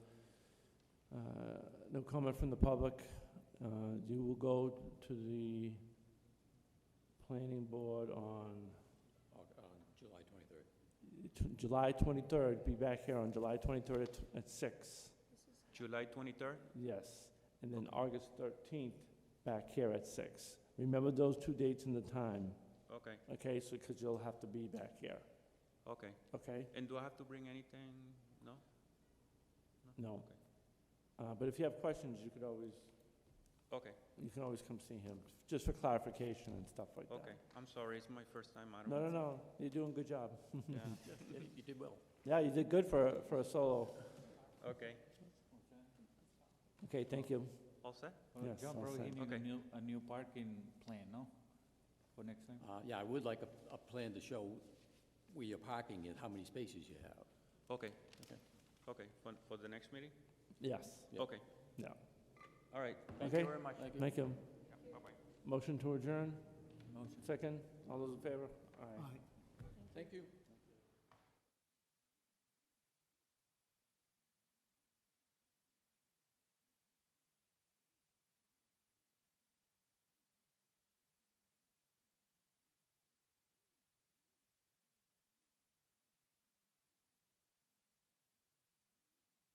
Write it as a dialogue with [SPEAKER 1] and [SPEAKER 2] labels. [SPEAKER 1] Uh, no comment from the public. Uh, You will go to the planning board on
[SPEAKER 2] on uh, July 23rd.
[SPEAKER 1] t- July 23rd, be back here on July 23rd at- at six.
[SPEAKER 3] July 23rd?
[SPEAKER 1] Yes, and then August 13th, back here at six. Remember those two dates and the time,
[SPEAKER 3] Okay,
[SPEAKER 1] okay? So, because you'll have to be back here,
[SPEAKER 3] okay.
[SPEAKER 1] okay?
[SPEAKER 3] And do I have to bring anything? No?
[SPEAKER 1] No.
[SPEAKER 3] Okay.
[SPEAKER 1] Uh, But if you have questions, you could always,
[SPEAKER 3] Okay,
[SPEAKER 1] you can always come see him, just for clarification and stuff like that.
[SPEAKER 3] okay. I'm sorry, it's my first time. I don't
[SPEAKER 1] No, no,
[SPEAKER 3] want
[SPEAKER 1] no, you're doing a good job.
[SPEAKER 3] to- Yeah.
[SPEAKER 2] You did well.
[SPEAKER 1] Yeah, you did good for, for a solo.
[SPEAKER 3] Okay,
[SPEAKER 1] Okay, thank you.
[SPEAKER 3] all set?
[SPEAKER 1] Well, Yes, John, all probably set. he
[SPEAKER 3] need a Okay.
[SPEAKER 4] new, a new parking plan, no? For next time?
[SPEAKER 2] Uh, Yeah, I would like a, a plan to show where you're parking and how many spaces you have.
[SPEAKER 3] Okay,
[SPEAKER 2] Okay.
[SPEAKER 3] okay. For, for the next meeting?
[SPEAKER 1] Yes,
[SPEAKER 2] Yeah.
[SPEAKER 3] Okay.
[SPEAKER 1] Yeah.
[SPEAKER 3] All right, thank you
[SPEAKER 1] Okay.
[SPEAKER 3] very much.
[SPEAKER 2] Thank
[SPEAKER 1] thank you.
[SPEAKER 3] Yeah, Bye-bye.
[SPEAKER 1] Motion to adjourn,
[SPEAKER 4] Motion.
[SPEAKER 1] second. All those in favor? Aye.
[SPEAKER 2] Thank you.